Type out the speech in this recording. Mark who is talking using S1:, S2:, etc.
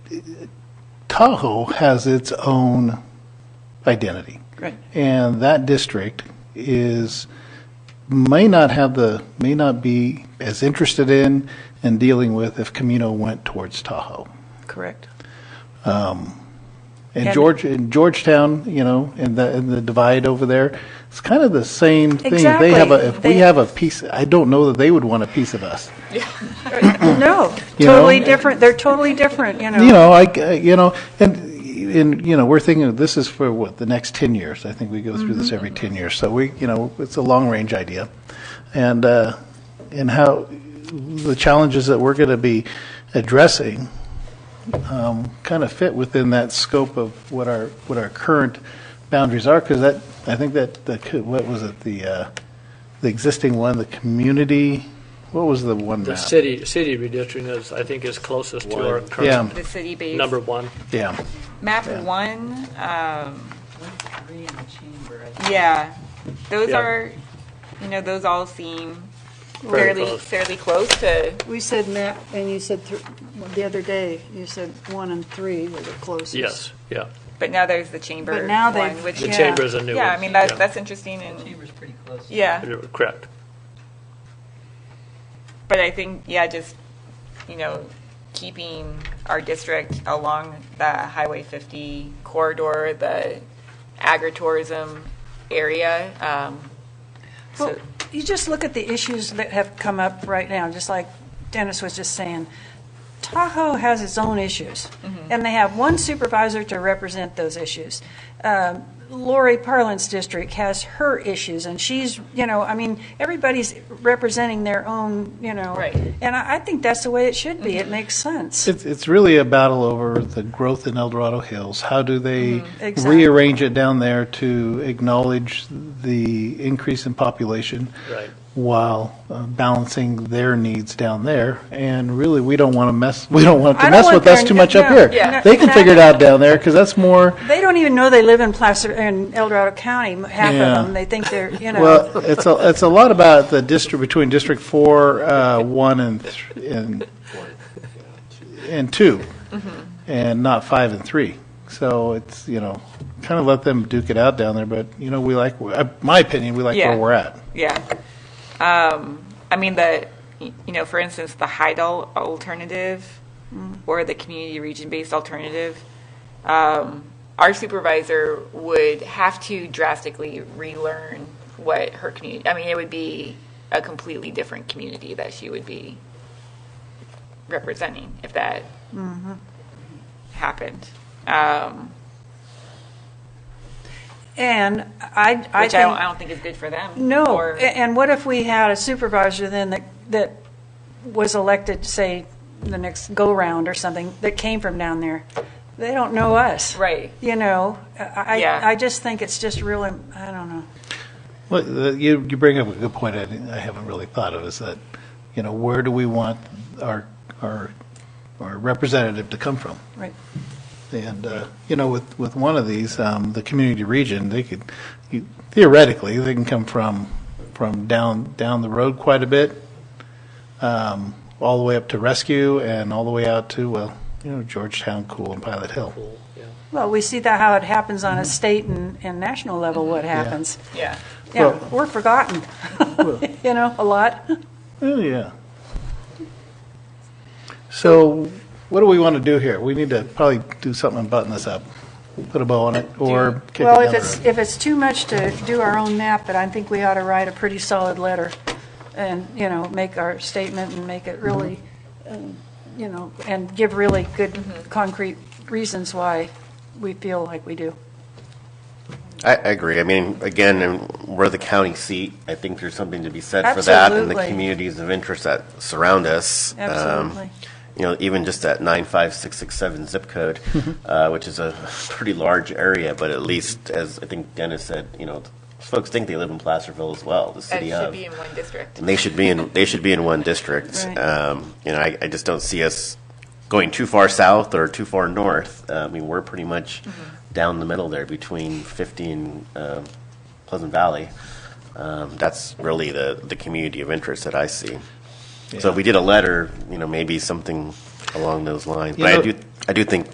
S1: Tahoe has its own identity.
S2: Right.
S1: And that district is, may not have the, may not be as interested in and dealing with if Camino went towards Tahoe.
S2: Correct.
S1: And
S2: And-
S1: George, and Georgetown, you know, and the, and the divide over there, it's kind of the same thing. If They have a, if
S2: Exactly.
S1: we
S2: They-
S1: have a piece, I don't know that they would want a piece of us.
S2: No,
S1: You know?
S2: totally different. They're totally different, you know.
S1: You know, I, I- you know, and, and, you know, we're thinking, this is for what, the next 10 years? I think we go through this every 10 years. So we, you know, it's a long-range idea. And, uh, and how, the challenges that we're going to be addressing um, kind of fit within that scope of what our, what our current boundaries are, because that, I think that, the co- what was it, the, uh, the existing one, the community, what was the one
S3: The
S1: map?
S3: city, city redistricting is, I think, is closest to our
S1: Yeah.
S3: current
S4: The city base.
S3: number one.
S1: Yeah.
S4: Map one, um,
S5: Three in the chamber, I think.
S4: yeah, those
S3: Yeah.
S4: are, you know, those all seem
S3: Very
S4: fairly,
S3: close.
S4: fairly close to,
S6: We said map, and you said, thr- the other day, you said one and three were the closest.
S3: Yes, yeah.
S4: but now there's the chamber
S6: But now they've-
S4: one, which.
S3: The
S6: Yeah.
S3: chamber is a new one.
S4: Yeah, I mean, that's, that's interesting
S5: The
S4: and,
S5: chamber's pretty close.
S4: yeah.
S3: You're Correct.
S4: But I think, yeah, just, you know, keeping our district along the Highway 50 corridor, the agritourism area. um,
S7: Well,
S4: So,
S7: you just look at the issues that have come up right now, just like Dennis was just saying. Tahoe has its own issues, and they have one supervisor to represent those issues. Um, Lori Parlin's district has her issues, and she's, you know, I mean, everybody's representing their own, you know.
S4: Right.
S7: And I I think that's the way it should be. It makes sense.
S1: It's, it's really a battle over the growth in El Dorado Hills. How do they
S7: Mm-hmm. Exactly.
S1: rearrange it down there to acknowledge the increase in population?
S3: Right.
S1: While uh, balancing their needs down there. And really, we don't want to mess, we don't want it
S7: I
S1: to
S7: don't
S1: mess
S7: want
S1: with us
S7: their-
S1: too much up
S7: no,
S1: here.
S7: yeah.
S1: They can figure it out down there because that's more,
S7: They don't even know they live in Placer, in El Dorado County, m- half of
S1: Yeah.
S7: them. They think they're, you know.
S1: well, it's a, it's a lot about the district, between District Four, uh, One and, th- and, and Two, and not Five and Three. So it's, you know, kind of let them duke it out down there, but, you know, we like, uh, my opinion, we like
S4: Yeah.
S1: where we're at.
S4: yeah. Um, I mean, the, you know, for instance, the Heidel alternative
S7: Mm-hmm.
S4: or the community region-based alternative, um, our supervisor would have to drastically relearn what her community, I mean, it would be a completely different community that she would be representing if that
S7: Mm-hmm.
S4: happened. Um,
S7: And I, I
S4: Which I don't,
S7: think
S4: I don't think is good for them.
S7: No,
S4: or-
S7: a- and what if we had a supervisor then that, that was elected, say, the next go-round or something, that came from down there? They don't know us.
S4: Right.
S7: You know, I,
S4: Yeah.
S7: I I just think it's just really, I don't know.
S1: Well, the- you, you bring up a good point I didn't- I haven't really thought of, is that, you know, where do we want our, our, our representative to come from?
S7: Right.
S1: And, uh, you know, with, with one of these, um, the community region, they could, you- theoretically, they can come from, from down, down the road quite a bit, um, all the way up to Rescue and all the way out to, well, you know, Georgetown, Cool, and Pilot Hill.
S3: Cool, yeah.
S7: Well, we see that how it happens
S1: Mm-hmm.
S7: on a state and, and national level, what happens.
S4: Yeah.
S7: Yeah,
S1: Well-
S7: we're forgotten, you know, a lot.
S1: Oh, yeah. So what do we want to do here? We need to probably do something and button this up, put a bow on it, or kick it
S7: Well,
S1: down
S7: if
S1: the
S7: it's,
S1: road.
S7: if it's too much to do our own map, but I think we ought to write a pretty solid letter and, you know, make our statement and make it really, um, you know, and give really good concrete reasons why we feel like we do.
S8: I, I agree. I mean, again, and we're the county seat. I think there's something to be said for that and the
S7: Absolutely.
S8: communities of interest that surround us. Um,
S7: Absolutely.
S8: You know, even just that 95667 zip code, uh, which is a pretty large area, but at least, as I think Dennis said, you know, folks think they live in Placerville as well, the
S4: It
S8: city
S4: should
S8: of.
S4: be in one district.
S8: And they should be in, they should be in one district.
S7: Right.
S8: Um, You know, I, I just don't see us going too far south or too far north. Uh, I mean, we're pretty much down the middle there between 50 and uh, Pleasant Valley. Um, That's really the, the community of interest that I see. So if we did a letter, you know, maybe something along those lines.
S1: You
S8: But I
S1: know-
S8: do, I do think